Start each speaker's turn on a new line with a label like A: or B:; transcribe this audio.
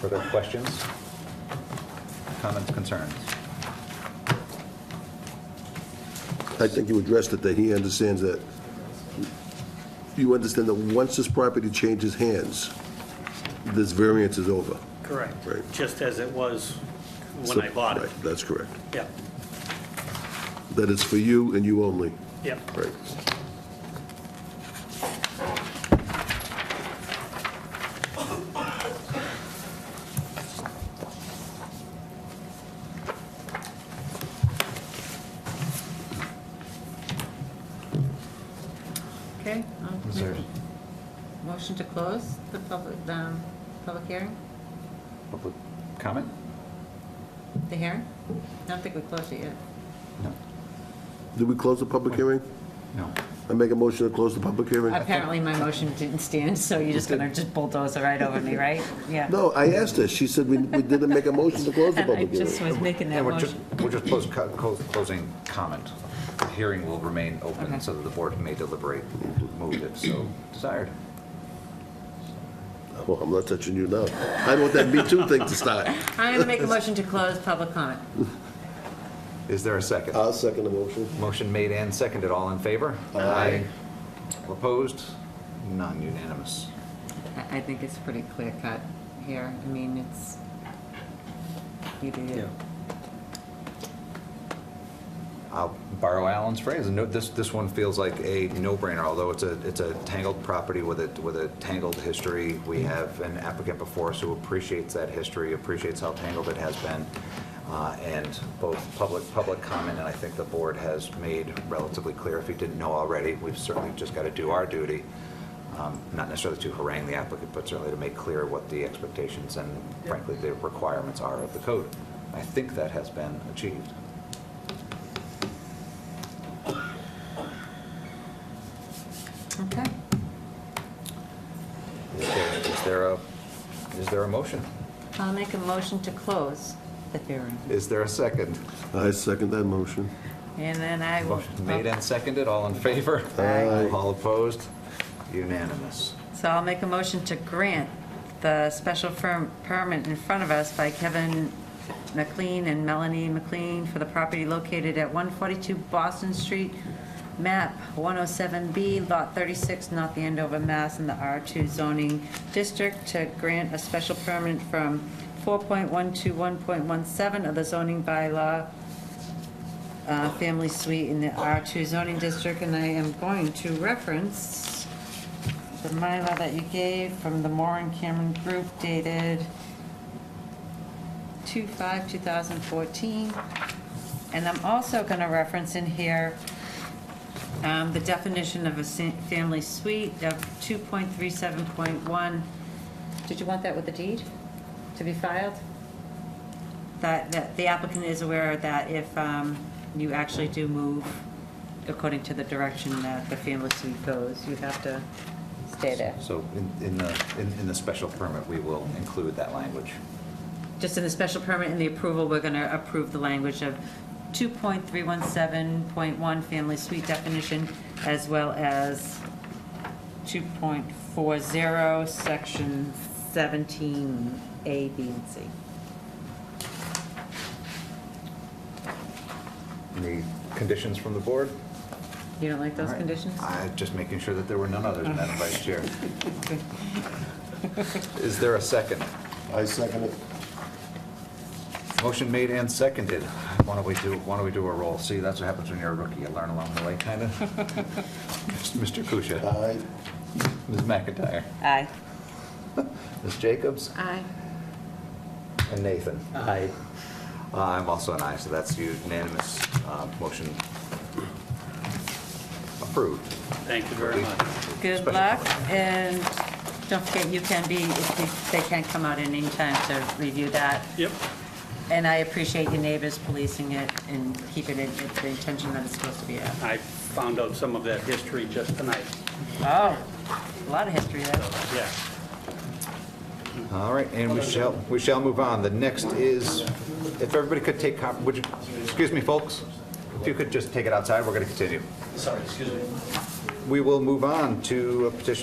A: Further questions? Comments, concerns?
B: I think you addressed it, that he understands that, you understand that once this property changes hands, this variance is over.
C: Correct.
B: Right.
C: Just as it was when I bought it.
B: Right, That's correct.
C: Yep,
B: That it's for you and you only.
C: yep.
B: Right.
D: Okay, I'll
A: Is
D: make
A: there-
D: a motion to close the public, um, public hearing,
A: Public comment?
D: the hearing? I don't think we closed it yet.
A: No,
B: Did we close the public hearing?
A: no.
B: I make a motion to close the public hearing?
D: Apparently, my motion didn't stand, so you're just gonna just bulldoze it right over me, right? Yeah.
B: No, I asked her, she said we we didn't make a motion to close the
D: And I
B: public
D: just
B: hearing.
D: was making
A: Yeah,
D: that
A: we're just,
D: motion.
A: we're just close- co- close- closing comment. The Hearing will remain open
D: Okay.
A: so that the board may deliberate, move if so desired.
B: Well, I'm not touching you now. I want that Me Too thing to start.
D: I'm gonna make a motion to close public comment.
A: Is there a second?
B: I'll second the motion.
A: Motion made and seconded, all in favor? Aye. All Opposed? None unanimous.
D: I, I think it's pretty clear cut here. I mean, it's either you.
A: I'll borrow Alan's phrase, no, this, this one feels like a no-brainer, although it's a, it's a tangled property with a, with a tangled history. We have an applicant before us who appreciates that history, appreciates how tangled it has been, uh, and both public, public comment, and I think the board has made relatively clear, if you didn't know already, we've certainly just got to do our duty, um, not necessarily to harangue the applicant, but certainly to make clear what the expectations and frankly, the requirements are of the code. I think that has been achieved.
D: Okay.
A: Is there- Is there a, is there a motion?
D: I'll make a motion to close the hearing.
A: Is there a second?
B: I second that motion.
D: And then I will.
A: Motion made and seconded, all in favor?
B: Aye.
A: All opposed? Unanimous.
D: So I'll make a motion to grant the special firm permit in front of us by Kevin McLean and Melanie McLean for the property located at 142 Boston Street, map 107B, lot 36, North Andover, Mass. in the R2 zoning district to grant a special permit from 4.1 to 1.17 of the zoning bylaw uh, family suite in the R2 zoning district, and I am going to reference the Mylar that you gave from the Moore and Cameron Group dated 2/5/2014. And I'm also going to reference in here um, the definition of a sa- family suite of 2.37.1. Did you want that with the deed to be filed? that, that the applicant is aware that if um, you actually do move according to the direction that the family suite goes, you have to stay there.
A: So in, in the, in in the special permit, we will include that language.
D: Just in the special permit and the approval, we're going to approve the language of 2.317.1 family suite definition, as well as 2.40, section 17A, B, and C.
A: Any conditions from the board?
D: You don't like those
A: All right.
D: conditions?
A: I- Just making sure that there were none others, Madam Vice Chair. Is there a second?
B: I second it.
A: Motion made and seconded. Why don't we do, why don't we do a roll? See, that's what happens when you're a rookie, you learn along the way, kind of. Mr. Kusia,
B: Aye.
A: Ms. McIntyre,
D: Aye.
A: Ms. Jacobs,
D: Aye.
A: and Nathan.
C: Aye.
A: Uh, I'm also an aye, so that's unanimous. Uh, Motion approved.
C: Thank you very much.
D: Good
A: Special
D: luck, and don't forget, you can be, if you- they can't come out in any time to review that.
C: Yep,
D: And I appreciate your neighbors policing it and keeping it at the intention that it's supposed to be at.
C: I found out some of that history just tonight,
D: Oh, a lot of history there.
C: yeah.
A: All right, and we shall, we shall move on. The next is, if everybody could take, cop- would you, excuse me, folks? If you could just take it outside, we're going to continue. Sorry, excuse me. We will move on to a petition